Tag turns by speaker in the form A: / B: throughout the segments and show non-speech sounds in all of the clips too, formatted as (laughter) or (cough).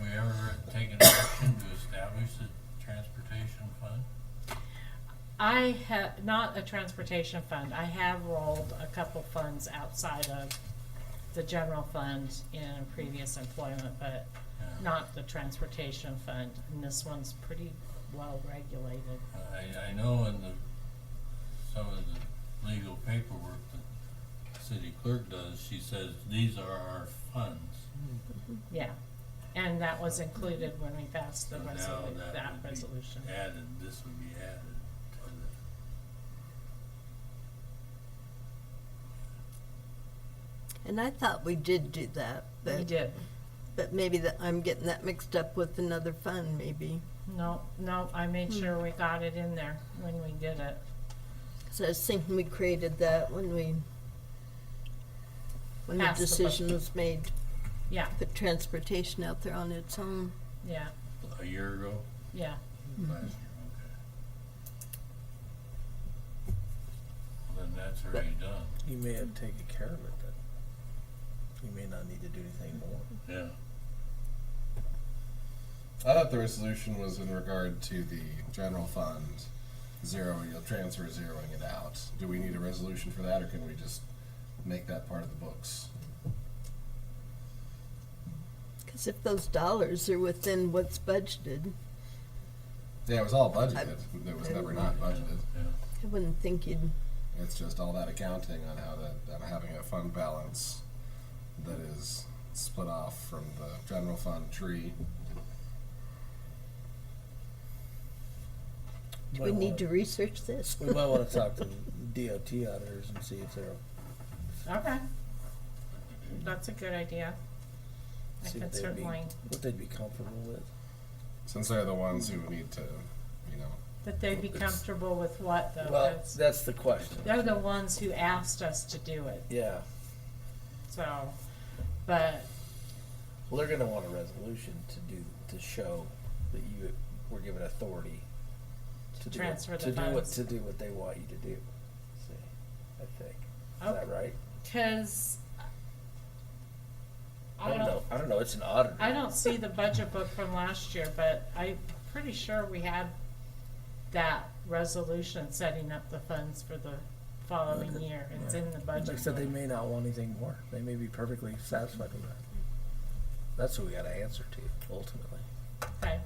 A: we ever taken action to establish the transportation fund?
B: I have, not a transportation fund, I have rolled a couple funds outside of the general fund in previous employment, but
A: Yeah.
B: not the transportation fund, and this one's pretty well regulated.
A: I, I know in the, some of the legal paperwork that city clerk does, she says, these are our funds.
B: Yeah, and that was included when we passed the
A: So now
B: resolu-
A: that
B: that
A: would be
B: resolution.
A: Added, this would be added to the,
C: And I thought we did do that, but
B: We did,
C: but maybe that I'm getting that mixed up with another fund, maybe.
B: no, no, I made
D: Hmm.
B: sure we got it in there when we did it.
C: So I was thinking we created that when we when
B: Passed
C: the
B: the budget.
C: decision was made to
B: Yeah,
C: put transportation out there on its own.
B: yeah,
A: a year ago,
B: yeah, Mm-hmm.
A: last year, okay. Well, Then that's already done,
D: You may have taken care of it then. You may not need to do anything more.
A: yeah.
E: I thought the resolution was in regard to the general fund, zero, you'll transfer zeroing it out. Do we need a resolution for that, or can we just make that part of the books?
C: Because if those dollars are within what's budgeted,
E: Yeah, it was all budgeted, it was never not budgeted.
A: Yeah,
C: I wouldn't think you'd.
E: It's just all that accounting on how that, on having a fund balance that is split off from the general fund tree.
C: Do we
D: Might
C: need to
D: wanna-
C: research this?
D: We might wanna talk to DOT auditors and see if they're,
B: okay. That's a good idea. I
D: see
B: can
D: if they'd be,
B: certainly,
D: what they'd be comfortable with.
E: Since they're the ones who need to, you know,
B: that they'd be
E: It's-
B: comfortable with what though,
D: Well,
B: 'cause
D: that's the question.
B: they're the ones who asked us to do it,
D: Yeah,
B: so, but,
D: well, they're gonna want a resolution to do, to show that you were given authority to do, what-
B: transfer the
D: to do what,
B: funds.
D: to do what they want you to do, see, I think. Is
B: oh,
D: that right?
B: cause I
D: don't
B: don't,
D: know, I don't know, it's an auditor.
B: I don't see the budget book from last year, but I'm pretty sure we had that resolution setting up the funds for the following year. It's in the budget.
D: Like I said, they
B: book.
D: may not want anything more. They may be perfectly satisfied with that. That's what we gotta answer to ultimately.
B: Okay,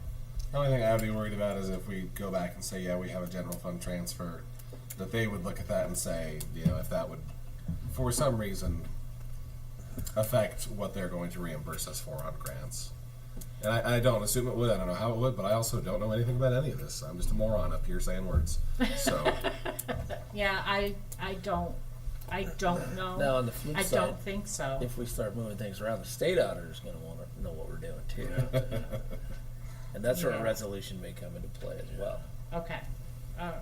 E: The only thing I'd be worried about is if we go back and say, yeah, we have a general fund transfer, that they would look at that and say, you know, if that would, for some reason, affect what they're going to reimburse us for on grants. And I, I don't assume it would, I don't know how it would, but I also don't know anything about any of this. I'm just a moron up here saying words. So, (laughs)
B: yeah, I, I don't, I don't
D: Now,
B: know.
D: on the flip
B: I
D: side,
B: don't think so.
D: if we start moving things around, the state auditor's gonna wanna know what we're doing too. And that's where
B: Yeah.
D: a resolution may come into play as well.
B: Okay. Um,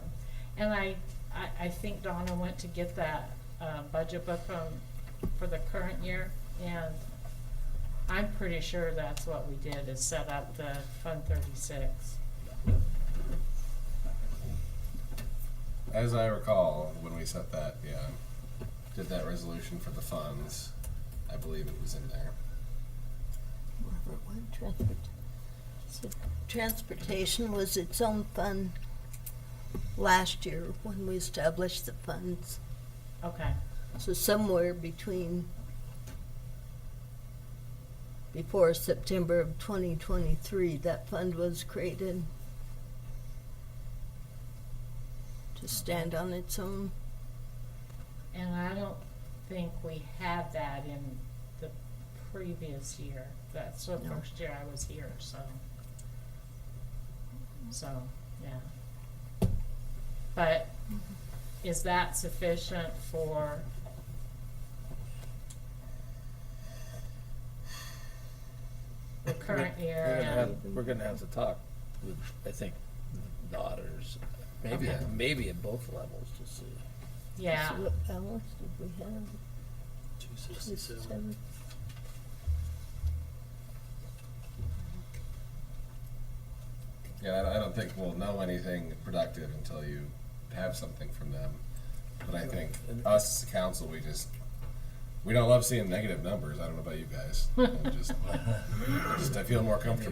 B: And I, I, I think Donna went to get that, uh, budget book from, for the current year, and I'm pretty sure that's what we did, is set up the Fund thirty-six.
E: as I recall, when we set that, yeah, did that resolution for the funds, I believe it was in there.
C: Whatever it was, transport. So transportation was its own fund last year when we established the funds.
B: Okay,
C: So somewhere between before September of 2023, that fund was created to stand on its own.
B: and I don't think we had that in the previous year. That's the
C: No.
B: first year I was here, so. So, yeah. But is that sufficient for the current
D: We're-
B: year?
D: We're gonna
B: and-
D: have, we're gonna have to talk with, I think, the auditors, maybe,
B: Okay.
D: maybe at both levels to see.
B: Yeah,
C: So what balance did we have? 267.
E: Yeah, I don't- I don't think we'll know anything productive until you have something from them. But I think us, as council, we just, we don't love seeing negative numbers. I don't know about you guys. I'm just, just I feel more comfortable